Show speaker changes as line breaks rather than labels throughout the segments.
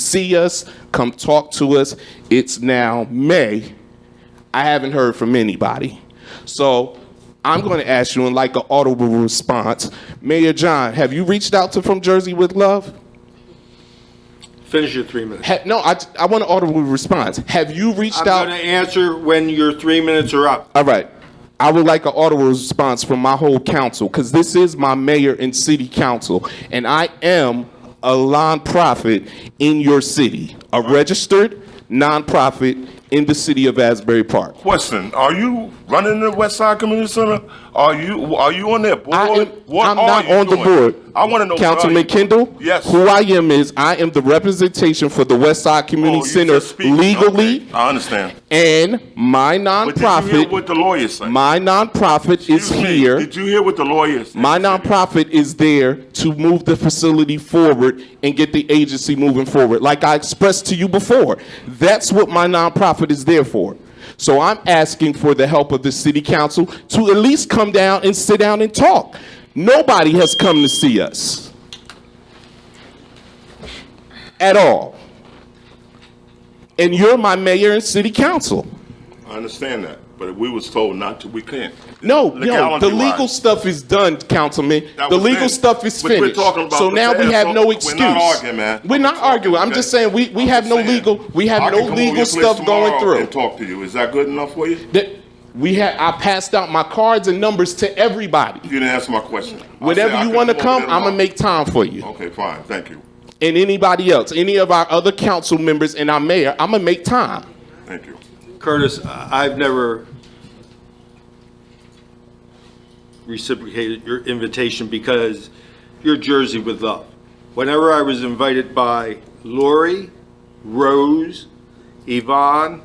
see us, come talk to us. It's now May. I haven't heard from anybody. So I'm going to ask you in like an audible response, Mayor John, have you reached out to From Jersey with Love?
Finish your three minutes.
Ha- no, I, I want an audible response. Have you reached
I'm
out?
going to answer when your three minutes are up.
All right. I would like an audible response from my whole council because this is my mayor and city council, and I am a nonprofit in your city, a registered nonprofit in the city of Asbury Park.
Question, are you running the West Side Community Center? Are you, are you on that board?
I am,
What
I'm
are
not
you
on the
doing?
board.
I want to know. what are
Councilman
you doing?
Kendall?
Yes.
Who I am is I am the representation for the West Side
Oh,
Community
you
Center
just speaking.
legally,
Okay, I understand.
and my
But did you hear
nonprofit,
what the lawyer said?
my nonprofit is
Excuse me,
here.
Did you hear what the lawyer said?
My nonprofit is there to move the facility forward and get the agency moving forward, like I expressed to you before. That's what my nonprofit is there for. So I'm asking for the help of the city council to at least come down and sit down and talk. Nobody has come to see us at all. And you're my mayor and city council.
I understand that, but we was told not to, we can't.
No, no,
Legality
the legal
wise.
stuff is done, Councilman.
That
The
was
legal
finished.
stuff is
But we're
finished.
talking about
So
the
now we
past.
have
Don't-
no
we're not
excuse.
arguing, man.
We're not
We're talking,
arguing. I'm
okay?
just saying, we, we
I'm
have
just
no
saying.
legal, we
I
have
can
no
come over your
legal
place
stuff going
tomorrow
through.
And talk to you, is that good enough for you?
That- We had, I passed out my cards and numbers to everybody.
You didn't answer my question. I said I
Whenever you
could
want to
over
come,
there
I'm gonna
tomorrow.
make time for you.
Okay, fine, thank you,
And anybody else, any of our other council members and our mayor, I'm gonna make time.
thank you.
Curtis, I- I've never reciprocated your invitation because you're Jersey with love. Whenever I was invited by Lori, Rose, Yvonne,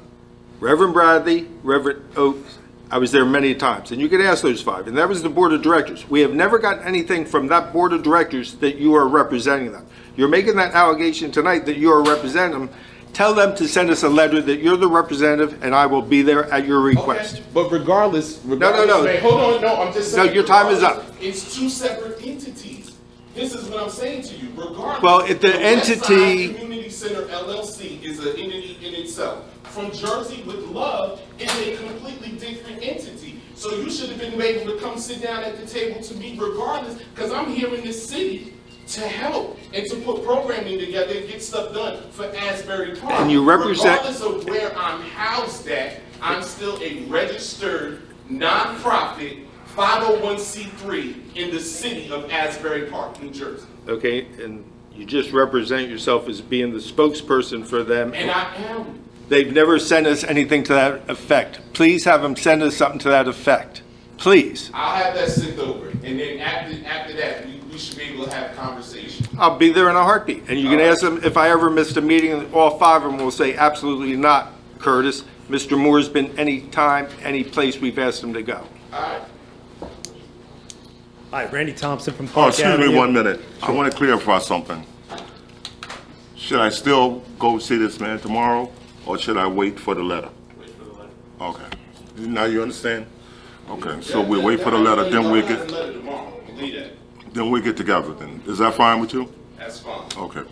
Reverend Bradley, Reverend Oaks, I was there many times, and you could ask those five, and that was the board of directors. We have never gotten anything from that board of directors that you are representing them. You're making that allegation tonight that you are representing them. Tell them to send us a letter that you're the representative, and I will be there at your request.
But regardless,
no,
regardless.
no.
Wait, Hold on, no, I'm just
No,
saying.
your time is up.
It's two separate entities. This is what I'm saying to you, regardless.
Well, if the entity-
Westside Community Center LLC is an entity in itself. From Jersey with Love is a completely different entity. So you should have been able to come sit down at the table to me regardless, because I'm here in this city to help and to put programming together and get stuff done for Asbury Park.
And you represent-
Regardless regardless of where I'm housed at, I'm still a registered nonprofit 501c3 in the city of Asbury Park, New Jersey.
okay? And you just represent yourself as being the spokesperson for them.
And I am.
They've never sent us anything to that effect. Please have them send us something to that effect, please.
I'll have that sent over. And then after, after that, we, we should be able to have a conversation.
I'll be there in a heartbeat. And you can ask them, if I ever missed a meeting, all five of them will say, absolutely not, Curtis. Mr. Moore's been any time, any place we've asked him to go.
All right?
Hi, Randy Thompson from
Oh,
Park
excuse me
Avenue.
one minute. I want to clarify something. Should I still go see this man tomorrow, or should I wait for the letter? Okay. Now you understand? Okay, so we wait for the letter, then we
I'll have the
get,
letter tomorrow. Believe that.
then we get together then. Is that fine with you?
That's fine.
Okay.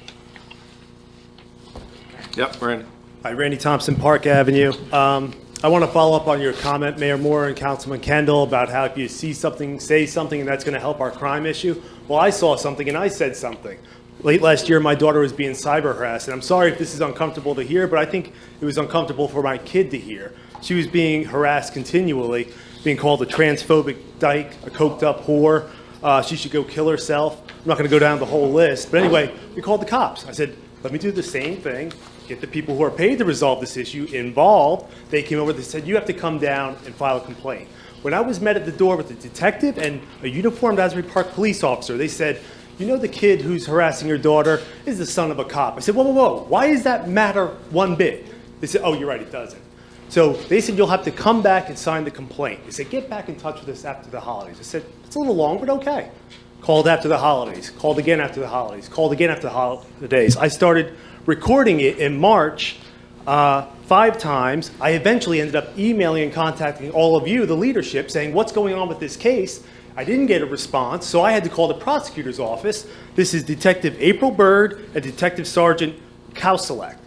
Yep, Brandon.
Hi, Randy Thompson, Park Avenue. Um, I want to follow up on your comment, Mayor Moore and Councilman Kendall, about how if you see something, say something, and that's going to help our crime issue. Well, I saw something and I said something. Late last year, my daughter was being cyber harassed, and I'm sorry if this is uncomfortable to hear, but I think it was uncomfortable for my kid to hear. She was being harassed continually, being called a transphobic dyke, a coked-up whore. Uh, she should go kill herself. I'm not going to go down the whole list, but anyway, we called the cops. I said, let me do the same thing, get the people who are paid to resolve this issue involved. They came over, they said, you have to come down and file a complaint. When I was met at the door with a detective and a uniformed Asbury Park police officer, they said, you know the kid who's harassing your daughter is the son of a cop. I said, whoa, whoa, whoa, why does that matter one bit? They said, oh, you're right, it doesn't. So they said, you'll have to come back and sign the complaint. They said, get back in touch with us after the holidays. I said, it's a little long, but okay. Called after the holidays, called again after the holidays, called again after the holidays. I started recording it in March uh, five times. I eventually ended up emailing and contacting all of you, the leadership, saying, what's going on with this case? I didn't get a response, so I had to call the prosecutor's office. This is Detective April Byrd and Detective Sergeant Cow Select.